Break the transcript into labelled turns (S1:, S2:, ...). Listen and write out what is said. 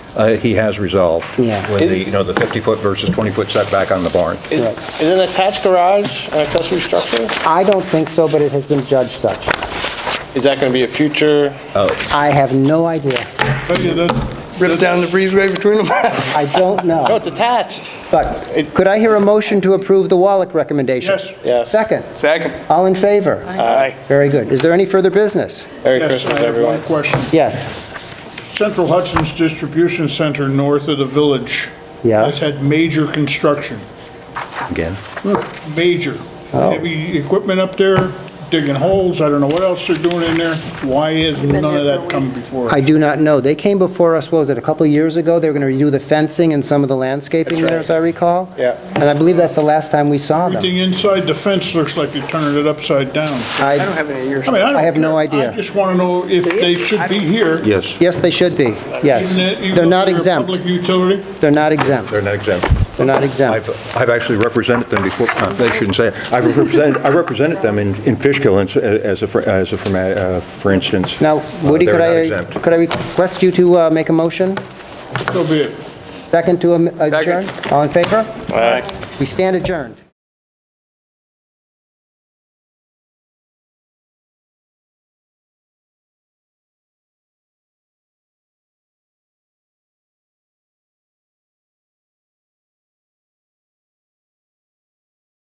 S1: uh, he has resolved.
S2: Yeah.
S1: With the, you know, the 50-foot versus 20-foot setback on the barn.
S3: Is is an attached garage an accessory structure?
S2: I don't think so, but it has been judged such.
S3: Is that going to be a future?
S2: I have no idea.
S4: Riddle down the breezeway between them.
S2: I don't
S3: No,
S2: know.
S3: it's attached.
S2: But could I hear a motion to approve the Wallach recommendation?
S4: Yes.
S3: Yes.
S2: Second.
S4: Second.
S2: All in favor?
S3: Aye.
S2: Very good. Is there any further business?
S3: Merry
S4: Yes,
S3: Christmas,
S4: I have
S3: everyone.
S4: one question.
S2: Yes.
S4: Central Hudson's Distribution Center north of the village.
S2: Yeah.
S4: Has had major construction,
S1: Again?
S4: major.
S2: Oh.
S4: Heavy equipment up there, digging holes, I don't know what else they're doing in there. Why has
S5: been
S4: none of
S5: there
S4: that
S5: for
S4: come
S5: weeks.
S4: before? us?
S2: I do not know. They came before us, what was it, a couple of years ago? They were going to redo the fencing and some of the landscaping there, as I recall.
S3: Yeah.
S2: And I believe that's the last time we saw them.
S4: Everything inside the fence looks like they're turning it upside down.
S2: I,
S4: have any ears. I mean, I don't
S2: I have no
S4: care.
S2: idea.
S4: I just want to know if they should be here.
S1: Yes,
S2: yes, they should be. Yes.
S4: even if- even
S2: They're
S4: though
S2: not
S4: a
S2: exempt.
S4: Public utility?
S2: They're not exempt.
S1: they're not exempt.
S2: They're not exempt.
S1: I've, I've actually represented them before, uh, they shouldn't say, it. I represented, I represented them in, in Fishkill as- as a, for- as a, forma- uh, for instance.
S2: Now,
S1: Uh,
S2: Woody,
S1: they're
S2: could
S1: not
S2: I,
S1: exempt.
S2: could I request you to uh, make a motion?
S4: So be it.
S2: Second to am- adjourn? All in favor?
S3: Aye.
S2: We stand adjourned.